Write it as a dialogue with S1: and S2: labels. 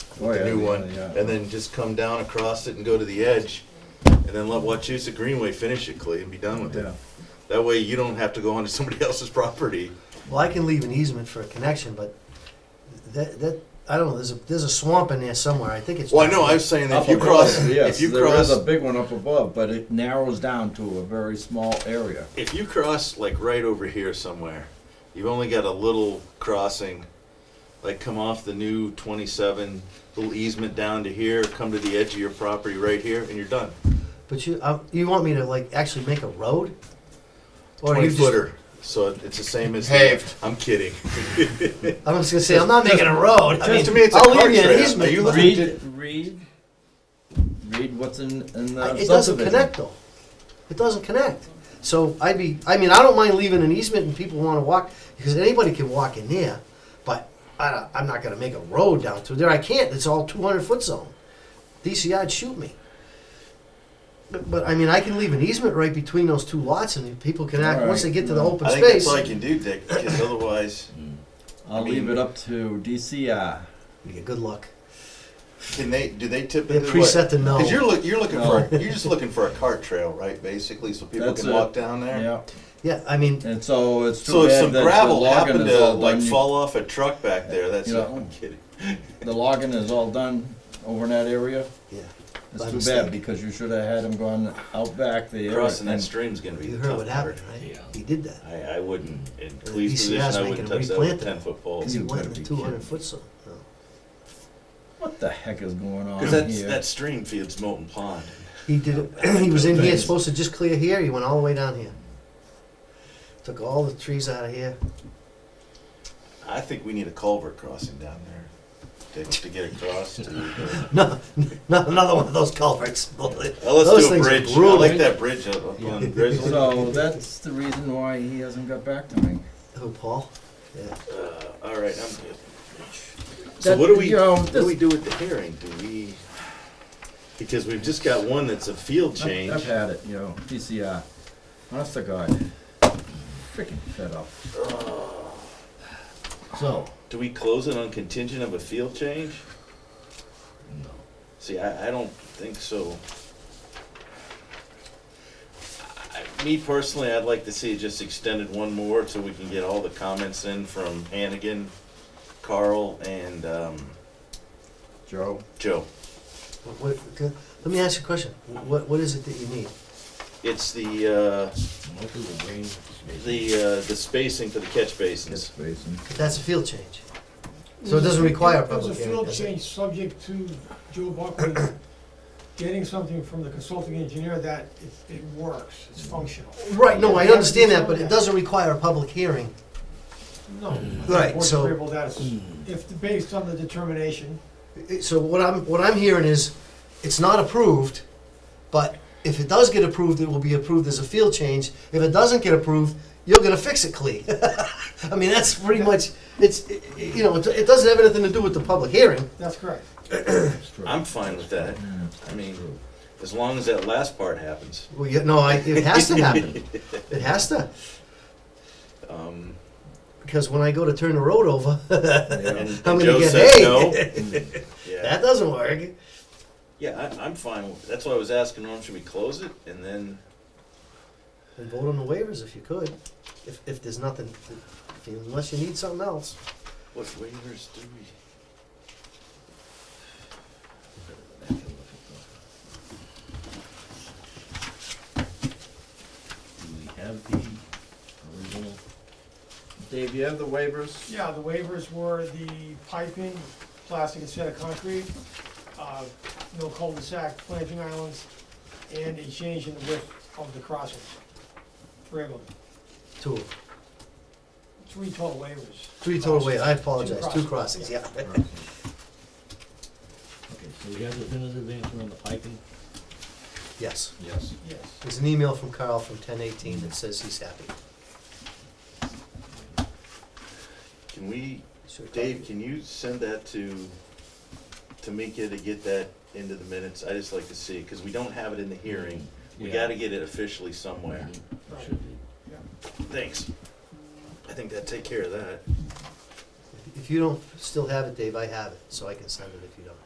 S1: Oh, yeah,
S2: the new
S1: yeah,
S2: one,
S1: yeah.
S2: and then just come down across it and go to the edge, and then let Wachusett Greenway finish it, Clay, and be done with
S1: Yeah,
S2: it. That way, you don't have to go onto somebody else's property.
S3: Well, I can leave an easement for a connection, but that, that, I don't know, there's a, there's a swamp in there somewhere, I think it's.
S2: Well, I know. I was saying that
S4: Up
S2: if you
S4: above,
S2: cross,
S4: yes,
S2: if you
S4: there is
S2: cross,
S4: a big one up above, but it narrows down to a very small area.
S2: if you cross like right over here somewhere, you've only got a little crossing. Like come off the new 27, little easement down to here, come to the edge of your property right here, and you're done.
S3: But you, uh, you want me to like actually make a road? Or you
S2: 20
S3: just-
S2: footer. So it's the same as
S5: Paved.
S2: I'm kidding.
S3: I'm just gonna say, I'm not making a road, I mean,
S2: Just to me, it's a
S3: I'll
S2: car
S3: leave you
S2: trail.
S3: an
S2: Are you
S3: easement, but
S4: Read,
S2: looking-
S4: read, read what's in, in
S3: I-
S4: the
S3: it doesn't
S4: Uh, subdivision.
S3: connect though. It doesn't connect. So I'd be, I mean, I don't mind leaving an easement and people wanna walk, because anybody can walk in there, but I, don't- I'm not gonna make a road down through there, I can't, it's all two hundred foot zone. DCI'd shoot me. But, but I mean, I can leave an easement right between those two lots and people can act, once they get to the
S4: Alright,
S3: open
S2: I think that's
S3: space.
S2: all you can do, Dick, because otherwise,
S4: I'll leave it up to DCI.
S3: Yeah, good luck.
S2: can they? Do they tip
S3: They're
S2: into what?
S3: preset to no.
S2: Because you're look, you're looking for you're just looking for a cart trail, right? Basically, so people
S4: That's
S2: can
S4: it.
S2: walk down there.
S4: Yeah,
S3: Yeah, I mean,
S4: and so it's too
S2: So if
S4: bad
S2: some
S4: that the
S2: gravel
S4: logging
S2: happened
S4: is
S2: to
S4: all
S2: like
S4: done. You-
S2: fall off a truck back there, that's
S4: You
S2: not,
S4: know.
S2: I'm kidding.
S4: The logging is all done over in that area.
S3: yeah,
S4: It's
S3: By
S4: too
S3: mistake.
S4: bad because you should have had him gone out back there.
S2: Crossing that
S4: and-
S2: stream's gonna be
S3: you
S2: the
S3: heard what
S2: tough part.
S3: happened, right?
S5: Yeah.
S3: He did that.
S2: I, I wouldn't, in
S3: The
S2: Cleve's
S3: DCI
S2: position,
S3: is
S2: I
S3: making
S2: wouldn't
S3: them
S2: touch that with a
S3: replant that.
S2: ten foot pole.
S3: Because he
S4: You
S3: went in
S4: better
S3: the
S4: be
S3: two hundred
S4: kidding.
S3: foot zone. No.
S4: What the heck is going on
S2: Cause that's,
S4: here?
S2: that stream feeds Molten Pond.
S3: He did it. he was in here, supposed to just clear here. He went all the way down here. Took all the trees out of here.
S2: I think we need a culvert crossing down there to, to get across to. the-
S3: No, not another one of those culverts.
S2: Oh, let's
S3: Those
S2: do a
S3: things are
S2: bridge. I
S3: brutal.
S2: like that bridge up, up on Grizzly.
S4: So that's the reason why he hasn't got back to me.
S3: Who, Oh, Paul? Yeah.
S2: Uh, all right, I'm good. So what do we, what do we do with the hearing? Do we, because we've just got one that's a field
S4: I've, I've
S2: change.
S4: had it, you know, DCI. Honest to God, freaking fed up.
S3: So,
S2: Do we close it on contingent of a field change?
S5: No.
S2: See, I, I don't think so. I- Me personally, I'd like to see it just extended one more so we can get all the comments in from Hannigan, Carl, and, um,
S4: Joe,
S2: Joe.
S3: what, what, c- let me ask you a question. What What is it that you need?
S2: It's the, uh,
S5: Look at the green.
S2: the, uh, the spacing for the catch
S4: it's
S2: basins.
S4: basin.
S3: That's a field change. So it doesn't require a
S6: There's a
S3: public hearing,
S6: field
S3: does it?
S6: change subject to Joe Buckley getting something from the consulting engineer that it, it works, it's functional.
S3: Right. No, I
S6: Yeah,
S3: understand that, but
S6: yeah.
S3: it doesn't require a public hearing.
S6: No. I think
S3: Right,
S6: the board's
S3: so- Hmm.
S6: agreeable that it's- If, the- based on the determination,
S3: It- So what I'm what I'm hearing is, it's not approved, but if it does get approved, it will be approved as a field change. If it doesn't get approved, you're gonna fix it, Clea. I mean, that's pretty much it's i- i- you know it, it doesn't have anything to do with the public hearing.
S6: that's correct.
S2: I'm fine with that. I mean, as long as that last part happens.
S3: Well, you, no, I, it has to happen. It has to
S2: Um,
S3: because when I go to turn the road over,
S2: and-
S4: Yeah.
S2: and
S3: I'm gonna
S2: Joe
S3: get
S2: said
S3: hey.
S2: no. Yeah,
S3: that doesn't work.
S2: yeah, I, I'm fine. with- That's why I was asking, Norm, should we close it? And then,
S3: And vote on the waivers if you could. If if there's nothing, if you, unless you need something else.
S2: what waivers do we?
S5: Do we have the original?
S4: Dave, you have the waivers?
S6: Yeah, the waivers were the piping, plastic instead of concrete, uh, no cul-de-sac, planting islands, and a change in the width of the crossings. Three of them,
S3: Two,
S6: three total waivers.
S3: three total waivers. I apologize. Two
S6: Two
S3: crossings.
S6: crossings.
S3: Yeah.
S5: Okay, so we have definitive answer on the piping?
S3: yes.
S5: Yes.
S6: Yes.
S3: There's an email from Carl from ten eighteen that says he's happy.
S2: Can we,
S3: Sure.
S2: Dave, can you send that to Tamika to get that into the minutes? I just like to see, because we don't have it in the hearing. We
S5: Yeah.
S2: gotta get it officially somewhere.
S5: It should be.
S2: Thanks. I think that take care of that.
S3: If you don't still have it, Dave, I have it, so I can send it if you don't.